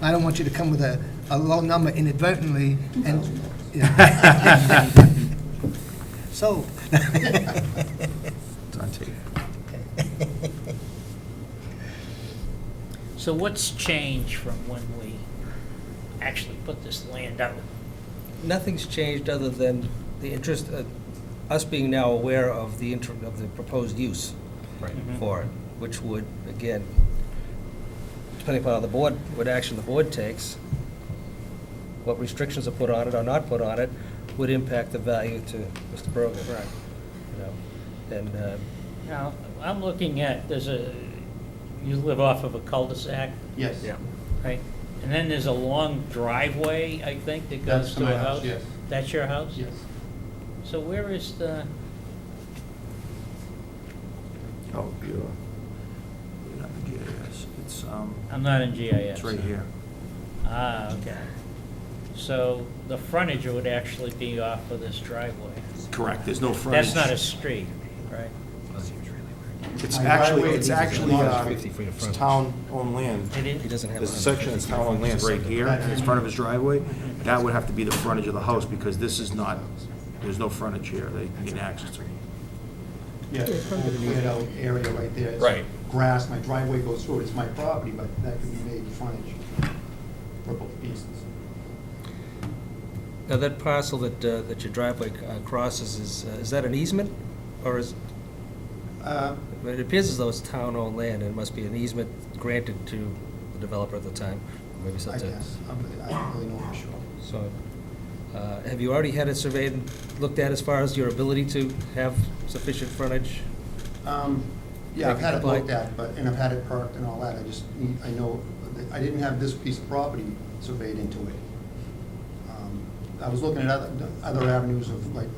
I don't want you to come with a, a low number inadvertently and, so, It's on tape. So what's changed from when we actually put this land out? Nothing's changed other than the interest, uh, us being now aware of the inter, of the proposed use Right. for it, which would, again, depending upon how the board, what action the board takes, what restrictions are put on it or not put on it, would impact the value to Mr. Brogan. Right. And, uh, Now, I'm looking at, there's a, you live off of a cul-de-sac, Yes. Yeah. right? And then there's a long driveway, I think, that That's goes to a my house? house, yes. That's your house? Yes. So where is the, Oh, you're, you're not the GIS. It's, um, I'm not in GIS. it's right here. Ah, okay. So the frontage would actually be off of this driveway. Correct, there's no frontage. That's not a street, right? It's My actually, driveway it's is actually, not uh, 50 feet of it's frontage. town-owned land. It is? he doesn't have. There's a section that's town-owned land right here, in front of his driveway. That would have to be the frontage of the house, because this is not, there's no frontage here. They can get access to it. Yes, little cleared out area right there. It's Right. Grass, my driveway goes through it, it's my property, but that can be made frontage for both pieces. Now, that parcel that, uh, that your driveway uh, crosses, is, uh, is that an easement? Or is, Uh, it appears as though it's town-owned land, and it must be an easement granted to the developer at the time, maybe I something. guess, I'm- I don't really know for sure. So, uh, have you already had it surveyed and looked at as far as your ability to have sufficient frontage? Um, Yeah, I've had it Like- looked at, but, and I've had it perked and all that, I just, need- I know, that I didn't have this piece of property surveyed into it. Um, I was looking at other, other avenues of, like,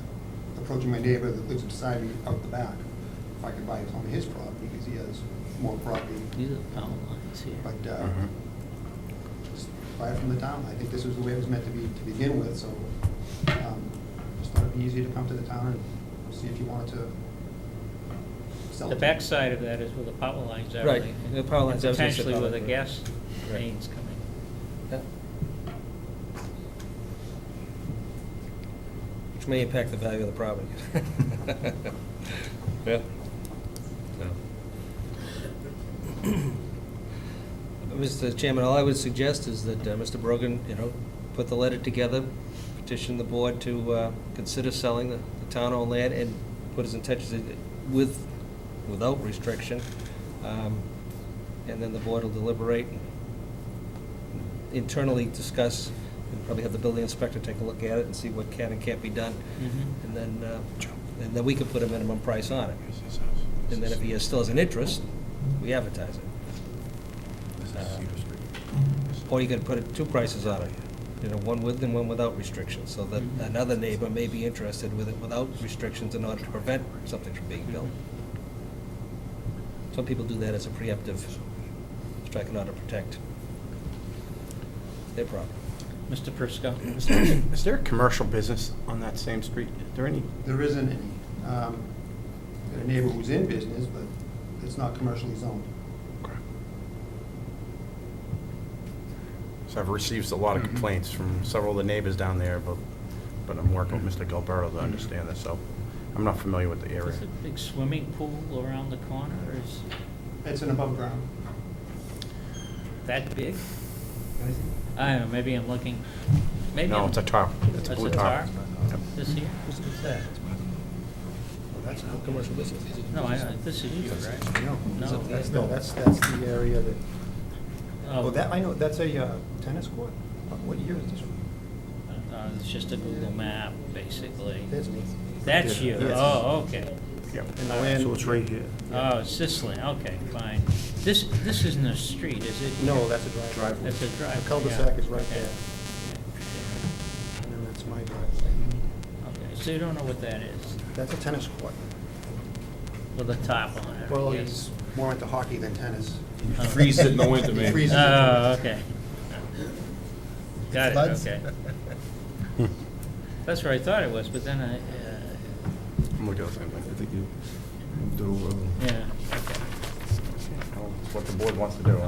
approaching my neighbor that lives beside me out the back, if I could buy some of his property, because he has more property, These are the power lines here. but, uh, just buy it from the town, I think this was the way it was meant to be, to begin with, so, um, just thought it'd be easier to come to the town and see if you wanted to sell it. The backside of that is where the power lines are. Right, like, the power lines, I was gonna say Potentially power where the lines. gas Right. mains come in. Yeah. Which may impact the value of the property. Yeah. Mr. Chairman, all I would suggest is that uh, Mr. Brogan, you know, put the letter together, petition the board to uh, consider selling the the town-owned land and put his intentions in- with, without restriction. Um, And then the board will deliberate internally discuss, and probably have the building inspector take a look at it and see what can and can't be done. And then, uh, and then we can put a minimum price on it. And then if he has- still has an interest, we advertise it. Or you could put it- two prices on it, you know, one with and one without restrictions, so that another neighbor may be interested with it without restrictions in order to prevent something from being built. Some people do that as a preemptive strike in order to protect their property. Mr. Prisco? Is there a commercial business on that same street? Is there any? There isn't any. Um, Got a neighbor who's in business, but it's not commercially zoned. So I've received a lot of complaints from several of the neighbors down there, but, but I'm working with Mr. Gilberto to understand this, so I'm not familiar with the area. Is a big swimming pool around the corner, or is It's an above ground. that big? I don't know, maybe I'm looking, maybe No, I'm- it's a tarp. It's a That's blue a tarp. tarp? Yep. This here? What's that? That's No commercial business. No, I, I- this is you, right? No, that's- No, that's, that's the area that, Oh, oh, that, I know, that's a uh, tennis court. What- What year is this? uh, It's just a Google map, basically. That's me. That's you, Yes. oh, okay. Yep. And the land, So it's right here. Oh, it's this land, okay, fine. This, this isn't a street, is it? no, that's a driveway. That's a driveway, The cul-de-sac yeah. is right Okay. there, and then that's my driveway. Okay, so you don't know what that is, That's a tennis court. with a top on it? Well, yes. he's more into hockey than tennis. Oh. Freezes it in the winter, He man. freezes it. Oh, okay. Got it, Floods? okay. That's where I thought it was, but then I, uh, I'm looking at the same thing. Do, uh, yeah. I don't know What the board wants to do.